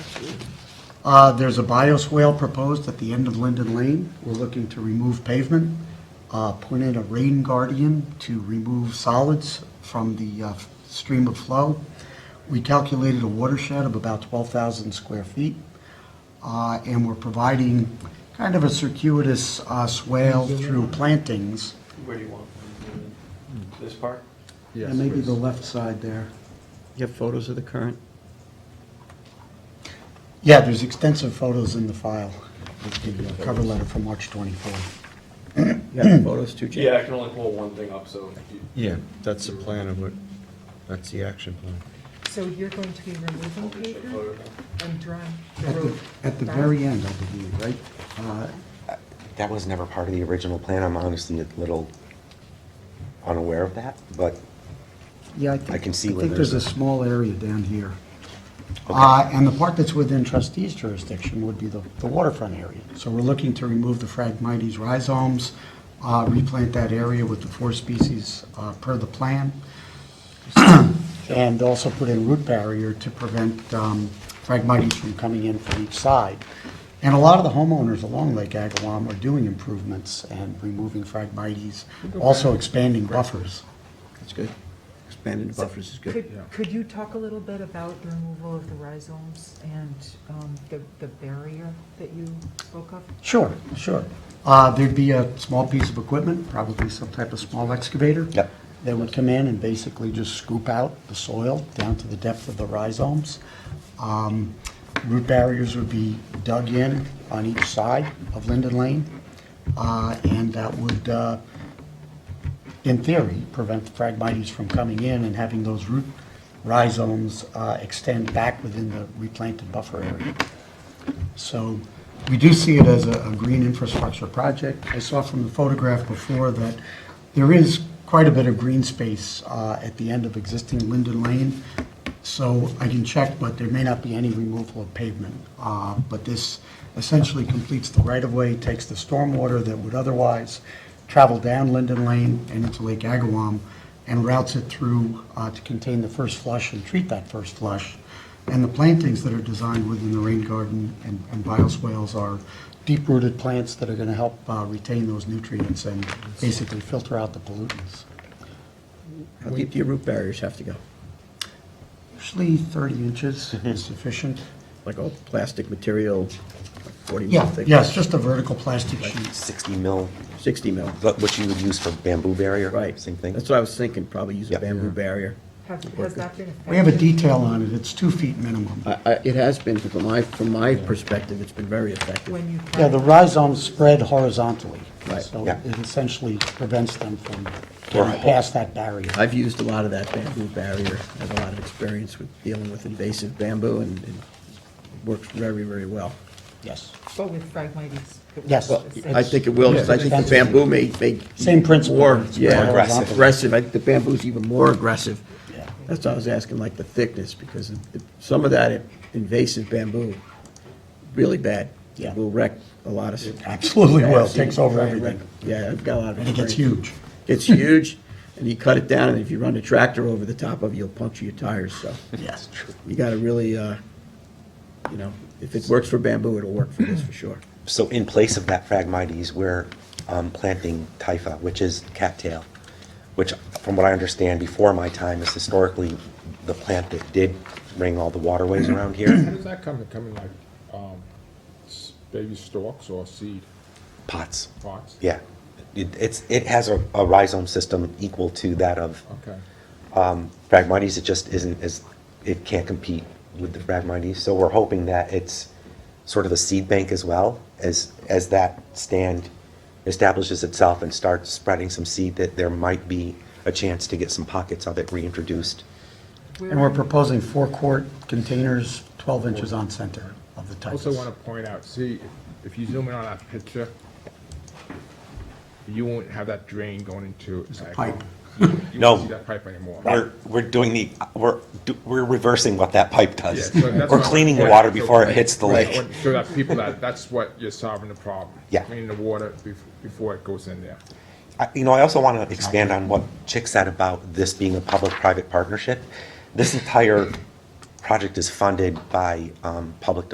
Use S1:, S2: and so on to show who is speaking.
S1: Uh, There's a bioswale proposed at the end of Linden Lane. We're looking to remove pavement, uh, put in a rain guardian to remove solids from the uh, stream of flow. We calculated a watershed of about 12,000 square feet, uh, and we're providing kind of a circuitous uh, swale through plantings.
S2: Where do you want? This part?
S1: And maybe the left side there.
S3: You have photos of the current?
S1: Yeah, there's extensive photos in the file, with the uh, cover letter from March 24th.
S3: You have photos too, Jim?
S2: Yeah, I can only pull one thing up, so. you-
S4: Yeah, that's the plan of what, that's the action plan.
S5: So you're going to be removing paper and drawing the
S1: At the,
S5: road?
S1: at the
S5: back?
S1: very end, I believe, right? Uh,
S6: That was never part of the original plan. I'm honestly a little unaware of that, but
S1: Yeah, I think.
S6: I can see where
S1: I think there's a
S6: there's a-
S1: small area down here. Uh, and the part that's within trustees jurisdiction would be the, the waterfront area. So we're looking to remove the Phragmites rhizomes, uh, replant that area with the four species, uh, per the plan. And also put in root barrier to prevent, um, Phragmites from coming in from each side. And a lot of the homeowners along Lake Agawam are doing improvements and removing Phragmites, also expanding buffers.
S3: That's good. Expanded buffers is good.
S5: Could, could you talk a little bit about the removal of the rhizomes and um, the, the barrier that you spoke of?
S1: Sure, sure. Uh, There'd be a small piece of equipment, probably some type of small excavator.
S6: Yep.
S1: That would come in and basically just scoop out the soil down to the depth of the rhizomes. Um, Root barriers would be dug in on each side of Linden Lane. uh, And that would, uh, in theory, prevent the Phragmites from coming in and having those root rhizomes uh, extend back within the replanted buffer area. So we do see it as a, a green infrastructure project. I saw from the photograph before that there is quite a bit of green space uh, at the end of existing Linden Lane. So I can check, but there may not be any removal of pavement. Uh, But this essentially completes the right-of-way, takes the stormwater that would otherwise travel down Linden Lane and into Lake Agawam and routes it through uh, to contain the first flush and treat that first flush. And the plantings that are designed within the rain garden and and bioswales are deep-rooted plants that are going to help uh, retain those nutrients and basically filter out the pollutants.
S3: How deep do your root barriers have to go?
S1: Usually 30 inches is sufficient.
S3: Like all plastic material, like 40 mil
S1: Yeah,
S3: thick?
S1: yeah, it's just a vertical plastic sheet.
S6: 60 mil,
S3: 60 mil,
S6: but what you would use for bamboo barrier.
S3: right.
S6: Same thing.
S3: That's what I was thinking, probably use a
S6: Yeah.
S3: bamboo barrier.
S5: Have- Has that been affected?
S1: We have a detail on it, it's two feet minimum.
S3: I- I- It has been, from my, from my perspective, it's been very effective.
S5: When you.
S1: Yeah, the rhizomes spread horizontally.
S3: Right.
S1: So
S6: Yeah.
S1: it essentially prevents them from getting past that barrier.
S3: I've used a lot of that bamboo barrier. I have a lot of experience with dealing with invasive bamboo, and and it works very, very well.
S1: Yes.
S5: But with Phragmites? it was
S1: Yes.
S5: the same.
S3: I think it will, because I think the bamboo may, may.
S1: Same principle.
S3: More,
S1: It's
S3: yeah.
S1: more aggressive.
S3: Aggressive, I think the bamboo's even more aggressive.
S1: Yeah.
S3: That's why I was asking, like, the thickness, because it- it- some of that invasive bamboo, really bad.
S1: Yeah.
S3: Will wreck a lot of.
S1: Absolutely will.
S3: Yeah, I've seen
S1: Takes over
S3: wreck-
S1: everything.
S3: Yeah, I've got a lot of.
S1: And it gets
S3: experience.
S1: huge.
S3: It's huge, and you cut it down, and if you run a tractor over the top of it, you'll puncture your tires, so
S1: Yes, true.
S3: you gotta really, uh, you know, if it works for bamboo, it'll work for this, for sure.
S6: So in place of that Phragmites, we're um, planting Typha, which is cattail, which, from what I understand, before my time, is historically the plant that did ring all the waterways around
S7: How
S6: here.
S7: does that come to come in like, um, s- baby stalks or seed
S6: Pots.
S7: pots?
S6: Yeah. It- It's, it has a a rhizome system equal to that of
S7: Okay.
S6: Phragmites, it just isn't as, it can't compete with the Phragmites. So we're hoping that it's sort of a seed bank as well, as, as that stand establishes itself and starts spreading some seed, that there might be a chance to get some pockets of it reintroduced.
S1: And we're proposing four-quart containers, 12 inches on center of the type.
S7: Also want to point out, see, if you zoom in on that picture, you won't have that drain going into. It's
S1: a pipe.
S7: You
S6: No.
S7: won't see that pipe anymore.
S6: We're, we're doing the, we're, do- we're reversing what that pipe
S7: Yeah, so
S6: does.
S7: that's
S6: We're
S7: what I'm
S6: cleaning the
S7: pointing
S6: water
S7: out. So-
S6: before it hits the
S7: Right,
S6: lake.
S7: So that people, that, that's what you're solving the problem.
S6: Yeah.
S7: Cleaning the water bef- before it goes in there.
S6: I- You know, I also want to expand on what Chick said about this being a public-private partnership. This entire project is funded by um, public